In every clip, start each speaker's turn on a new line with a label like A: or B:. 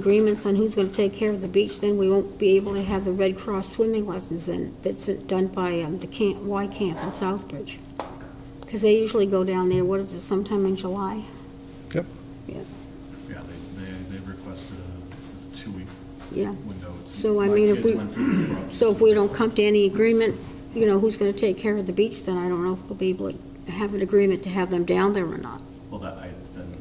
A: agreements on who's going to take care of the beach, then we won't be able to have the Red Cross swimming lessons in, that's done by um, the camp, Y Camp in Southbridge. Because they usually go down there, what is it, sometime in July?
B: Yep.
A: Yeah,
C: Yeah, they, they, they request a, it's a two-week
A: yeah.
C: window. It's-
A: So, I
C: my
A: mean, if
C: kids
A: we-
C: went through the process.
A: So if we don't come to any agreement, you know, who's going to take care of the beach, then I don't know if we'll be able to have an agreement to have them down there or not.
C: Well, that, I, then,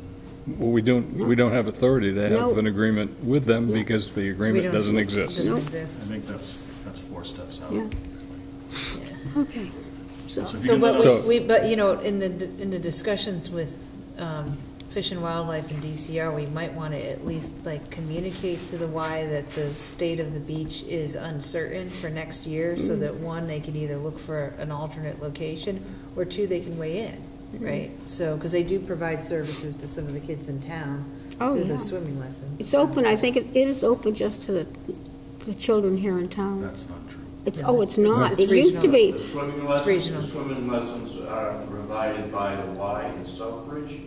B: Well, we don't, we don't have authority to
A: No.
B: have an agreement with them because the agreement
D: don't-
B: doesn't exist.
A: Nope.
D: Doesn't exist.
C: I think that's, that's four steps out.
A: Yeah. Okay, so,
C: So if you
D: So,
C: can let
D: but
C: us,
B: So-
D: we, we- but, you know, in the, in the discussions with um, Fish and Wildlife and DCR, we might want to at least, like, communicate to the Y that the state of the beach is uncertain for next year,
A: Mm-hmm.
D: so that, one, they can either look for an alternate location, or two, they can weigh in,
A: Mm-hmm.
D: right? So, because they do provide services to some of the kids in town
A: Oh,
D: through
A: yeah.
D: those swimming lessons.
A: it's open, I think it it is open just to the, the children here in town.
C: that's not true.
A: It's,
D: No,
A: oh, it's
D: it's-
A: not, it
D: it's
A: used to be.
D: regional.
E: The swimming
D: Regional.
E: lessons, the swimming lessons are provided by the Y in Southbridge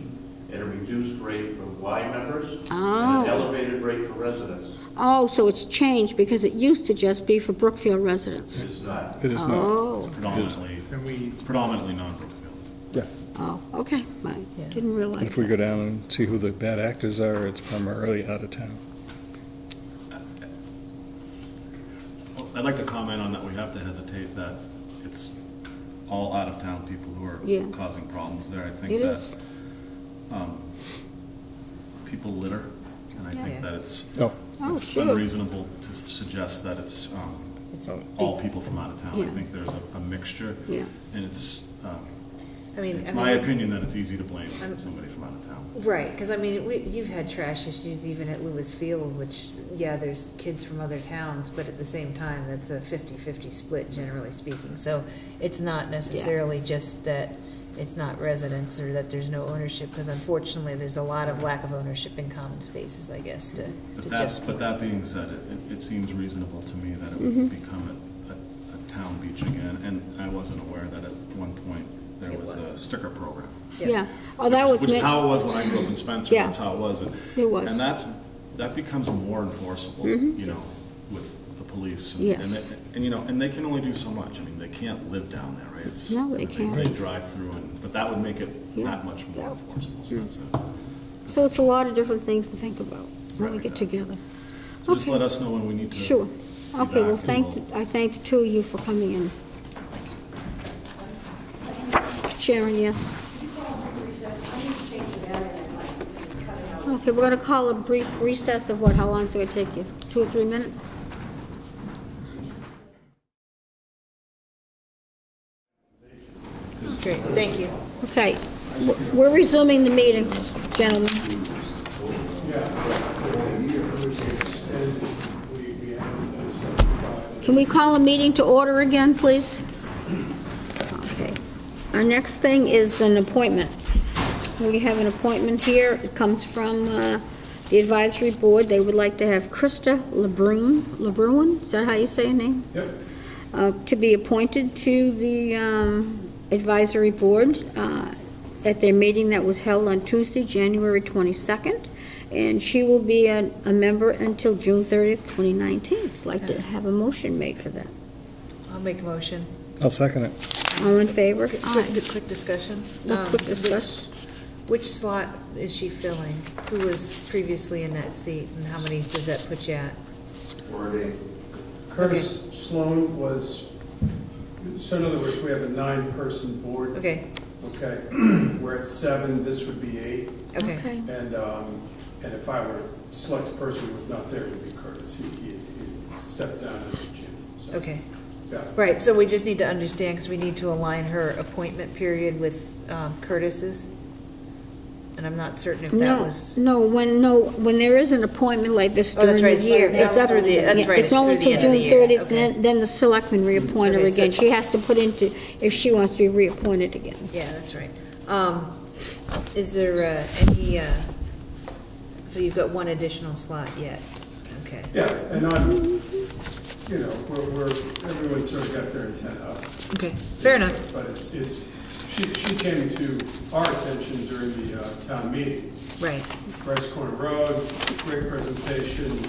E: at a reduced rate for Y members and
A: Oh.
E: an elevated rate for residents.
A: Oh, so it's changed because it used to just be for Brookfield residents.
E: It is not.
B: It is not.
A: Oh,
C: Predominantly, it's predominantly non-Brookfield.
B: Yeah.
A: oh, okay, I
D: Yeah.
A: didn't realize.
B: If we
A: that.
B: go down and see who the bad actors are, it's primarily out of town.
C: Well, I'd like to comment on that, we have to hesitate that it's all out-of-town people who
A: Yeah.
C: are causing problems there. I think
A: It
C: that,
A: is.
C: um, people litter, and I think
D: Yeah.
C: that it's,
B: Oh,
A: Oh,
C: it's
A: sure.
C: unreasonable to suggest that it's, um,
D: It's
C: all people from out of town. I
A: Yeah.
C: think there's a, a mixture.
A: Yeah.
C: And it's, um,
D: I mean,
C: it's
D: I
C: my
D: mean-
C: opinion that it's easy to blame
D: I'm-
C: somebody from out of town.
D: Right, because I mean, we, you've had trash issues even at Lewis Field, which, yeah, there's kids from other towns, but at the same time, that's a fifty-fifty split, generally speaking. So it's not necessarily just that it's not residents or that there's no ownership, because unfortunately, there's a lot of lack of ownership in common spaces, I guess, to, to
C: But
D: Jeff's
C: that, but
D: point.
C: that being said, it, it- it seems reasonable to me that it
D: Mm-hmm.
C: would become a, a, a town beach again. And I wasn't aware that at one point there
D: It
C: was a
D: was.
C: sticker program.
A: Yeah, oh, that
C: which-
A: was,
C: Which is
A: ma-
C: how it was when I grew up in Spencer,
A: Yeah.
C: that's how it was. And-
A: It was. Mm-hmm.
C: And that's, that becomes more enforceable, you know, with the police. and-
A: Yes.
C: And, they- and, you know, and they can only do so much, I mean, they can't live down there, right? It's-
A: No, they can't.
C: They drive through and, but that would make it
A: Yeah.
C: that much more enforceable, so that's it.
A: so it's a lot of different things to think about when we
C: Right.
A: get together.
C: So just
A: Okay.
C: let us know when we need to.
A: Sure.
C: be
A: Okay, well,
C: back and
A: thank,
C: we'll-
A: I thank the two of you for coming in. Sharon, yes? Okay, we're gonna call a brief recess of what, how long is it gonna take you? Two or three minutes?
D: Great, thank you.
A: Okay, we're resuming the meeting, gentlemen. Can we call a meeting to order again, please? Okay. Our next thing is an appointment. We have an appointment here. It comes from uh, the advisory board. They would like to have Krista LeBrun, LeBruin, is that how you say her name? uh, to be appointed to the um, advisory board uh, at their meeting that was held on Tuesday, January 22nd, and she will be a a member until June 30th, 2019. I'd like to have a motion made for that.
D: I'll make a motion.
B: I'll second it.
A: All in favor?
D: Quick-
A: Aye.
D: Quick quick discussion.
A: No,
D: Um,
A: quick
D: which-
A: discuss.
D: Which slot is she filling? Who was previously in that seat, and how many does that put you at?
E: Or they
F: Curtis Sloan was, so in other words, we have a nine-person board,
D: Okay,
F: okay? We're at seven, this would be eight,
D: okay.
F: and, um, and if I were to select a person who was not there, it would be Curtis. He, he he stepped down as a Jim, so.
D: Okay,
F: Yeah,
D: right, so we just need to understand, because we need to align her appointment period with um, Curtis's, and I'm not certain if that
A: No,
D: was,
A: no, when, no, when there is an appointment like this
D: Oh, that's
A: during
D: right,
A: the
D: it's
A: year.
D: not- that's
A: up-
D: through the- that's
A: yeah,
D: right,
A: It's
D: it's
A: only
D: through the
A: till
D: end of the
A: June
D: year,
A: 30th,
D: okay.
A: then, then the selectmen reappoint her
D: Okay, so-
A: again. She has to put into, if she wants to be reappointed again.
D: yeah, that's right. Um, Is there uh, any, uh, so you've got one additional slot yet, okay.
F: yeah, and I'm, you know, we're, we're, everyone sort of got their intent up,
D: Okay, fair enough,
F: but it's, it's, she she, she came to our attention during the uh, town meeting.
D: Right.
F: Bryce Corner Road, great presentation,